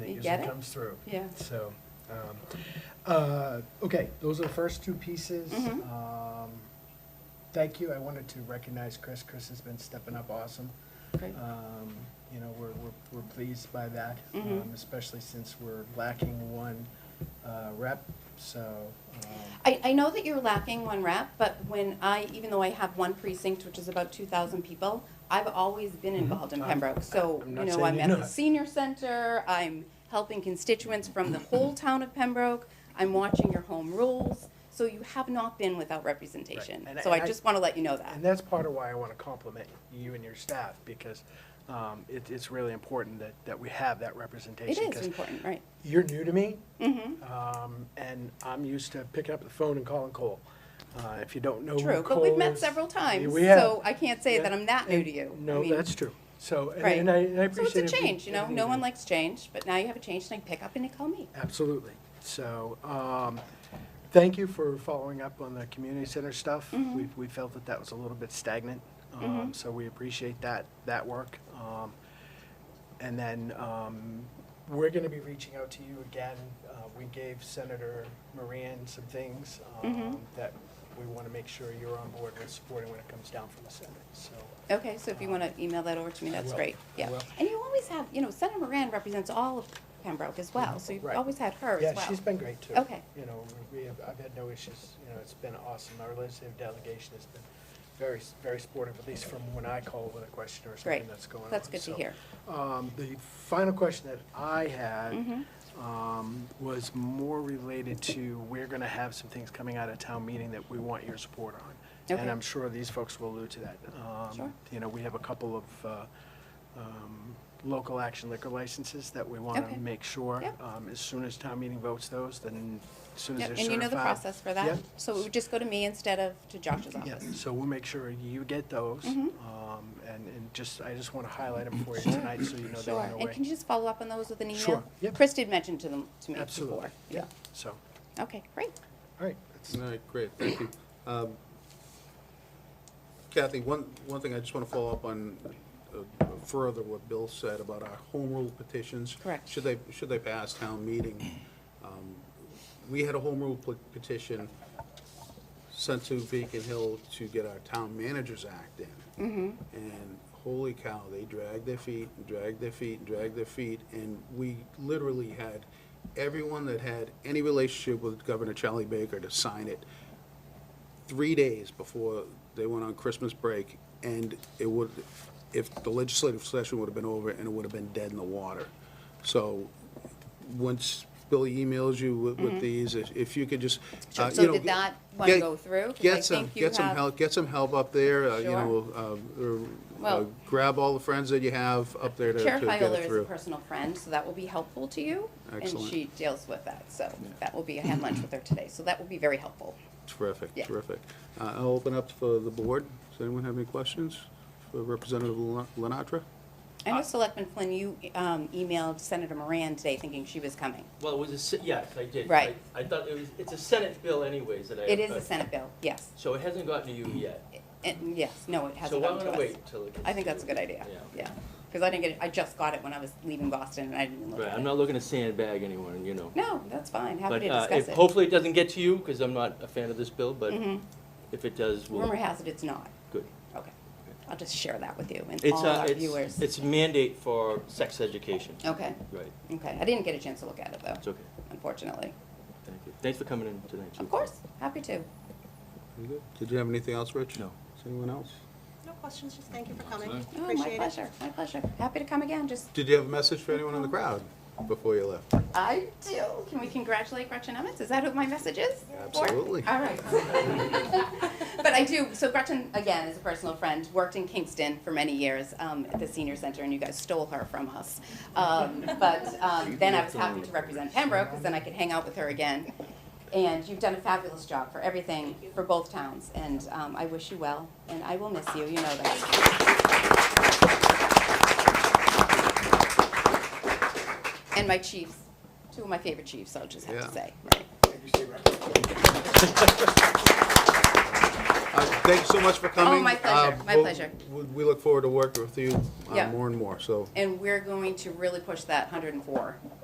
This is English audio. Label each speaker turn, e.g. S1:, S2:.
S1: as
S2: Get
S1: it
S2: it?
S1: comes through.
S2: Yeah.
S1: So, um, uh, okay, those are the first two pieces.
S2: Mhm.
S1: Um, Thank you, I wanted to recognize Chris, Chris has been stepping up awesome.
S2: Great.
S1: Um, You know, we're, we're, we're pleased by that,
S2: Mhm.
S1: um, especially since we're lacking one uh, rep, so. um,
S2: I, I know that you're lacking one rep, but when I, even though I have one precinct, which is about two thousand people, I've always been involved in
S1: Mm-hmm. I'm-
S2: Pembroke, so,
S1: I'm
S2: you
S1: not
S2: know,
S1: saying
S2: I'm
S1: you're
S2: at the
S1: not.
S2: senior center, I'm helping constituents from the whole town of Pembroke, I'm watching your home rules, so you have not been without representation,
S1: And I-
S2: so I
S1: and I-
S2: just wanna let you know
S1: And
S2: that.
S1: that's part of why I want to compliment you and your staff, because um, it, it's really important that, that we have that
S2: It
S1: representation.
S2: is
S1: 'cause
S2: important, right?
S1: You're new to me,
S2: Mm-hmm,
S1: um, and I'm used to picking up the phone and calling Cole. Uh, If you don't know who Cole
S2: true, but we've met
S1: is-
S2: several times,
S1: We have.
S2: so I can't say
S1: Yeah.
S2: that I'm that new to you. I
S1: No,
S2: mean,
S1: that's true. So, and-
S2: Right.
S1: and I and I
S2: So
S1: appreciate.
S2: it's a
S1: everything-
S2: change, you know,
S1: everything
S2: no
S1: do.
S2: one likes change, but now you have a change, and I pick up and you call me.
S1: Absolutely. So, um, thank you for following up on the community center stuff.
S2: Mhm.
S1: We, we felt that that was a little bit stagnant, um,
S2: Mhm.
S1: so we appreciate that, that work. Um, And then, um, we're gonna be reaching out to you again. Uh, we gave Senator Moran some things, um,
S2: Mhm.
S1: that we wanna make sure you're on board with supporting when it comes down from the Senate, so.
S2: Okay, so if you want to email that over to me,
S1: I
S2: that's
S1: will.
S2: great,
S1: I
S2: yeah.
S1: will.
S2: And you always have, you know, Senator Moran represents all of Pembroke as well, so you've
S1: Right.
S2: always had her as well.
S1: Yeah, she's been great too.
S2: Okay.
S1: You know, we- we have, I've had no issues, you know, it's been awesome. Our legislative delegation has been very, s- very supportive, at least from when I call with a question or something
S2: Great.
S1: that's going on.
S2: That's good to
S1: So,
S2: hear.
S1: Um, the final question that I had,
S2: Mhm.
S1: um, was more related to, we're gonna have some things coming out of town meeting that we want your support on.
S2: Okay.
S1: And I'm sure these folks will allude to that. Um,
S2: Sure.
S1: You know, we have a couple of, uh, um, local action liquor licenses that we wanna
S2: Okay.
S1: make sure.
S2: Yep.
S1: um, As soon as town meeting votes those, then as soon as
S2: Yep,
S1: they're
S2: And you know the
S1: certified-
S2: process for that,
S1: Yep.
S2: so it would just go to me instead of to Josh's
S1: Yeah,
S2: office.
S1: so we'll make sure you get those.
S2: Mhm.
S1: um, And, and just, I just wanna highlight them for you tonight, so you know they're
S2: Sure,
S1: on their way.
S2: and can you just follow up on those with an email?
S1: Sure, yep.
S2: Chris did mention to them, to me before.
S1: Absolutely, yeah, so, all
S2: Okay, great.
S1: right. that's-
S3: All right, great, thank you. Um, Kathy, one, one thing I just want to follow up on uh, further what Bill said about our home rule petitions.
S2: Correct.
S3: Should they, should they pass town meeting? Um, We had a home rule pe- petition sent to Beacon Hill to get our town managers act in. And holy cow, they dragged their feet, and dragged their feet, and dragged their feet, and we literally had everyone that had any relationship with Governor Charlie Baker to sign it three days before they went on Christmas break, and it would, if the legislative session would have been over, and it would have been dead in the water. So, once Billy emails you with, with these, if- if you could just,
S2: Sure.
S3: uh, you
S2: Mm-hmm. So
S3: know,
S2: did that one
S3: get-
S2: go through? 'Cause I
S3: Get some,
S2: think you
S3: get some
S2: have-
S3: help, get some help up there, uh, you
S2: Sure.
S3: know, uh, or, uh,
S2: Well-
S3: grab all the friends that you have up there to, to
S2: Chair
S3: get
S2: Fiola
S3: it
S2: is a
S3: through.
S2: personal friend, so that will be helpful to you. And
S3: Excellent.
S2: she deals with that, so that will be, I had lunch with her today, so that will be very helpful.
S3: Terrific,
S2: Yeah.
S3: terrific. Uh, I'll open up for the board. Does anyone have any questions for Representative Lena- Lenatra?
S2: I know Selectman Flynn, you um, emailed Senator Moran today thinking she was coming.
S4: Well, it was a, se- yes, I did.
S2: Right.
S4: I I thought it was, it's a Senate bill anyways that I.
S2: It is
S4: uh,
S2: a Senate bill, yes.
S4: So it hasn't gotten to you yet.
S2: And yes, no, it hasn't come
S4: So I'm
S2: to
S4: gonna
S2: us.
S4: wait till it gets.
S2: I think
S4: to
S2: that's a
S4: you.
S2: good idea,
S4: Yeah.
S2: yeah. Because I didn't get it, I just got it when I was leaving Boston and I didn't even look
S4: Right,
S2: at
S4: I'm
S2: it.
S4: not looking to sandbag anyone, you know.
S2: No, that's fine, happy
S4: But
S2: to
S4: uh, if,
S2: discuss it.
S4: hopefully it doesn't get to you, because I'm not a fan of this bill, but
S2: Mhm.
S4: if it does,
S2: Rumor
S4: we'll,
S2: has it it's not,
S4: good.
S2: okay. I'll just share that with you and
S4: It's,
S2: all
S4: uh,
S2: our
S4: it's-
S2: viewers.
S4: It's mandate for sex education.
S2: Okay,
S4: Right,
S2: okay, I didn't get a chance to look at it
S4: it's
S2: though,
S4: okay,
S2: unfortunately.
S4: thank you. Thanks for coming in tonight, too.
S2: Of course, happy to. Oh,
S3: Very good. Did you have anything else, Rich?
S4: No.
S3: Does anyone else?
S5: No questions, just thank you for coming.
S4: Excellent.
S2: Oh, my
S5: Appreciate it.
S2: pleasure, my pleasure. Happy to come again, just,
S3: Did you have a message for anyone in the crowd before you left?
S2: I do. Can we congratulate Gretchen Emmons? Is that who my message is? for?
S3: Absolutely.
S2: All right. But I do, so Gretchen, again, is a personal friend, worked in Kingston for many years um, at the senior center, and you guys stole her from us. Um, But um, then I was happy to represent Pembroke, because then I could hang out with her again. And you've done a fabulous job for everything, for both towns, and um, I wish you well, and I will miss you, you know that. And my chiefs, two of my favorite chiefs, I'll just have
S3: Yeah.
S2: to say.
S3: Uh, Thank you so much for
S2: Oh,
S3: coming.
S2: my pleasure,
S3: Uh,
S2: my
S3: we'll-
S2: pleasure.
S3: we- We look forward to working with you uh,
S2: Yeah.
S3: more and more, so.
S2: And we're going to really push that 104